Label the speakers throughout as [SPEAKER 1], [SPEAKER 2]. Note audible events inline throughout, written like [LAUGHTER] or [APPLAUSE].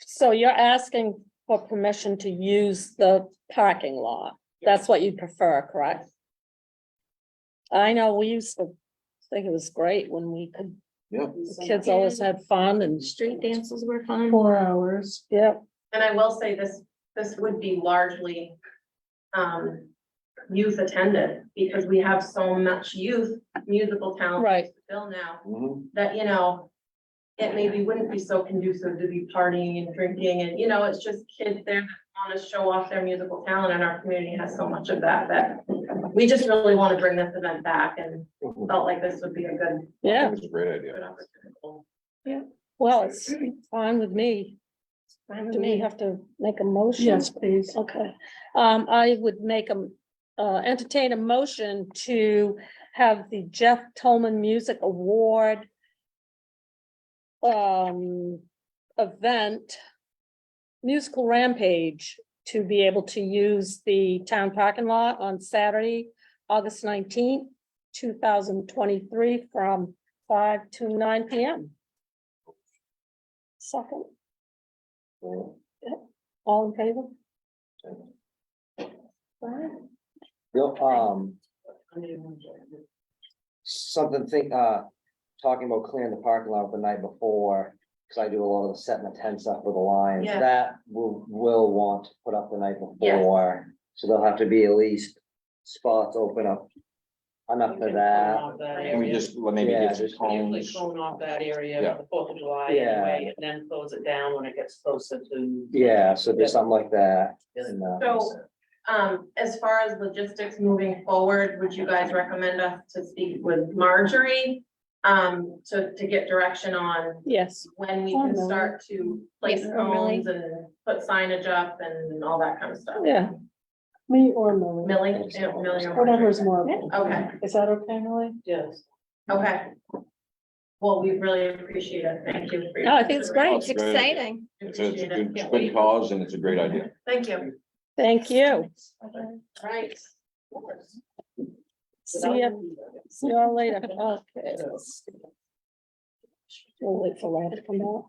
[SPEAKER 1] So you're asking for permission to use the parking lot? That's what you prefer, correct? I know we used to think it was great when we could,
[SPEAKER 2] Yeah.
[SPEAKER 1] the kids always had fun and,
[SPEAKER 3] Street dances were fun.
[SPEAKER 4] Four hours.
[SPEAKER 1] yeah,
[SPEAKER 3] And I will say this, this would be largely um youth attended because we have so much youth musical talent.
[SPEAKER 1] Right.
[SPEAKER 3] to Fill now
[SPEAKER 2] Mhm.
[SPEAKER 3] that, you know, it maybe wouldn't be so conducive to be partying and drinking and, you know, it's just kids there that want to show off their musical talent and our community has so much of that that we just really want to bring this event back and
[SPEAKER 2] Mhm.
[SPEAKER 3] felt like this would be a good,
[SPEAKER 2] I
[SPEAKER 1] yeah.
[SPEAKER 2] think It's a great idea.
[SPEAKER 3] good opportunity.
[SPEAKER 1] Well, it's fine with me. Do we have to make a motion?
[SPEAKER 4] Yes, please.
[SPEAKER 1] Okay, um, I would make a, uh, entertain a motion to have the Jeff Tolman Music Award um, event, musical rampage, to be able to use the town parking lot on Saturday, August nineteenth, two thousand twenty-three, from five to nine P M. Second, all in favor?
[SPEAKER 5] Bill, um, something think, uh, talking about clearing the parking lot the night before, cause I do a lot of the setting the tents up with the lines,
[SPEAKER 3] Yeah.
[SPEAKER 5] that will, will want to put up the night
[SPEAKER 3] Yes.
[SPEAKER 5] before. So there'll have to be at least spots open up enough for that.
[SPEAKER 2] Can we just, well, maybe
[SPEAKER 5] Yeah,
[SPEAKER 2] give some
[SPEAKER 5] just-
[SPEAKER 6] Usually
[SPEAKER 2] cones?
[SPEAKER 6] cone off that area
[SPEAKER 2] Yeah.
[SPEAKER 6] for the Fourth of July
[SPEAKER 5] Yeah.
[SPEAKER 6] anyway, and then close it down when it gets closer to.
[SPEAKER 5] Yeah, so there's something like that. and, uh,
[SPEAKER 3] So- Um, as far as logistics moving forward, would you guys recommend us to speak with Marjorie? Um, to, to get direction on
[SPEAKER 1] Yes.
[SPEAKER 3] when we
[SPEAKER 1] Oh,
[SPEAKER 3] can
[SPEAKER 1] no.
[SPEAKER 3] start to place
[SPEAKER 1] Yeah, oh, really?
[SPEAKER 3] cones and put signage up and all that kind of stuff?
[SPEAKER 1] Yeah.
[SPEAKER 4] Me or Millie,
[SPEAKER 3] Millie, eh, Millie or Marjorie?
[SPEAKER 4] whatever's more.
[SPEAKER 3] Okay,
[SPEAKER 4] Is that okay, Millie?
[SPEAKER 6] Yes.
[SPEAKER 3] okay. Well, we really appreciate it. Thank you. for your
[SPEAKER 1] No, I think it's great.
[SPEAKER 2] It's exciting. It's a, it's a
[SPEAKER 3] consideration.
[SPEAKER 2] good,
[SPEAKER 3] Appreciate it.
[SPEAKER 2] good cause and it's a great idea.
[SPEAKER 3] Thank you.
[SPEAKER 1] Thank you.
[SPEAKER 3] Right.
[SPEAKER 1] See you, see you all
[SPEAKER 7] [LAUGHS]
[SPEAKER 1] later. Okay. We'll wait for Ryan to come out.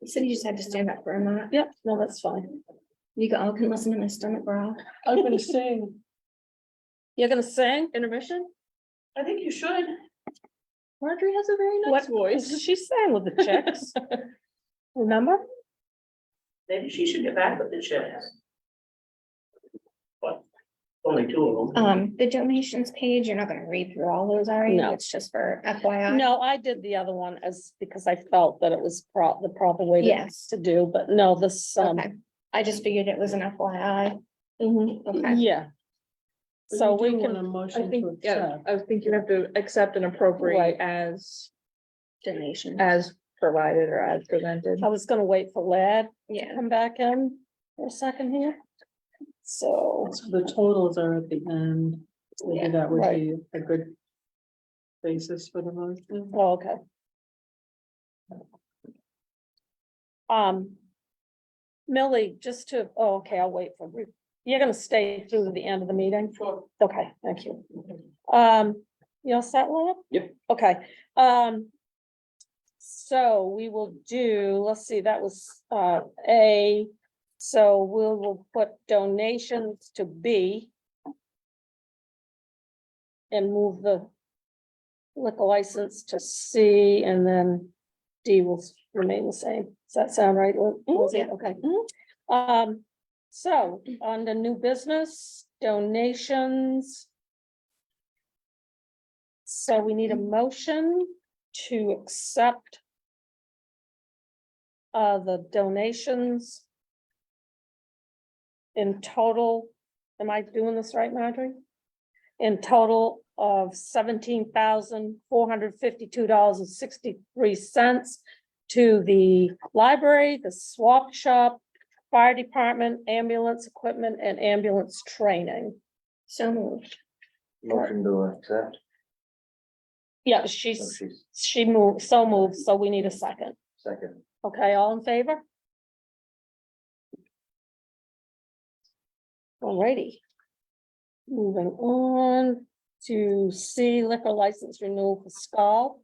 [SPEAKER 7] You said you just had to stand up for a minute.
[SPEAKER 1] Yep, no, that's fine.
[SPEAKER 7] You all can listen to my stomach growl.
[SPEAKER 4] I'm gonna sing.
[SPEAKER 1] You're gonna sing?
[SPEAKER 3] Intermission?
[SPEAKER 6] I think you should.
[SPEAKER 3] Marjorie has a very
[SPEAKER 1] What voice? She sang with the chicks. Remember?
[SPEAKER 6] Maybe she should get back with the chicks. But only two of them.
[SPEAKER 7] Um, the donations page, you're not gonna read through all those, are you?
[SPEAKER 1] No.
[SPEAKER 7] It's just for FYI.
[SPEAKER 1] No, I did the other one as, because I felt that it was pro- the proper way to,
[SPEAKER 7] Yes.
[SPEAKER 1] to do, but no, this, um,
[SPEAKER 7] Okay. I just figured it was an FYI.
[SPEAKER 1] mhm,
[SPEAKER 7] Okay.
[SPEAKER 1] yeah. So we can,
[SPEAKER 4] Motion
[SPEAKER 8] I think,
[SPEAKER 4] to
[SPEAKER 8] yeah,
[SPEAKER 4] accept.
[SPEAKER 8] I think you have to accept and appropriate
[SPEAKER 1] Right.
[SPEAKER 8] as,
[SPEAKER 7] Donation.
[SPEAKER 8] as provided or as presented.
[SPEAKER 1] I was gonna wait for Lad to
[SPEAKER 7] Yeah.
[SPEAKER 1] come back in for a second here. So,
[SPEAKER 4] So the totals are at the end. Maybe
[SPEAKER 7] Yeah,
[SPEAKER 4] that would
[SPEAKER 1] right.
[SPEAKER 4] be a good basis for the motion.
[SPEAKER 1] oh, okay. Um. Millie, just to, oh, okay, I'll wait for, you're gonna stay through the end of the meeting?
[SPEAKER 6] Sure.
[SPEAKER 1] Okay, thank you. Um, you all set, Lana?
[SPEAKER 5] Yep.
[SPEAKER 1] Okay, um. So we will do, let's see, that was uh A, so we will put donations to B. And move the liquor license to C and then D will s- remain the same. Does that sound right? Lin- Lindsay?
[SPEAKER 7] yeah.
[SPEAKER 1] Okay. Um, so on the new business donations. So we need a motion to accept uh, the donations in total, am I doing this right, Marjorie? In total of seventeen thousand, four hundred fifty-two dollars and sixty-three cents to the library, the swap shop, fire department, ambulance equipment, and ambulance training.
[SPEAKER 7] So moved.
[SPEAKER 5] Motion to accept.
[SPEAKER 1] Yeah,
[SPEAKER 5] So
[SPEAKER 1] she's,
[SPEAKER 5] she's
[SPEAKER 1] she moved, so moved, so we need a second.
[SPEAKER 5] second.
[SPEAKER 1] Okay, all in favor? Alrighty. Moving on to C liquor license renewal for Skull.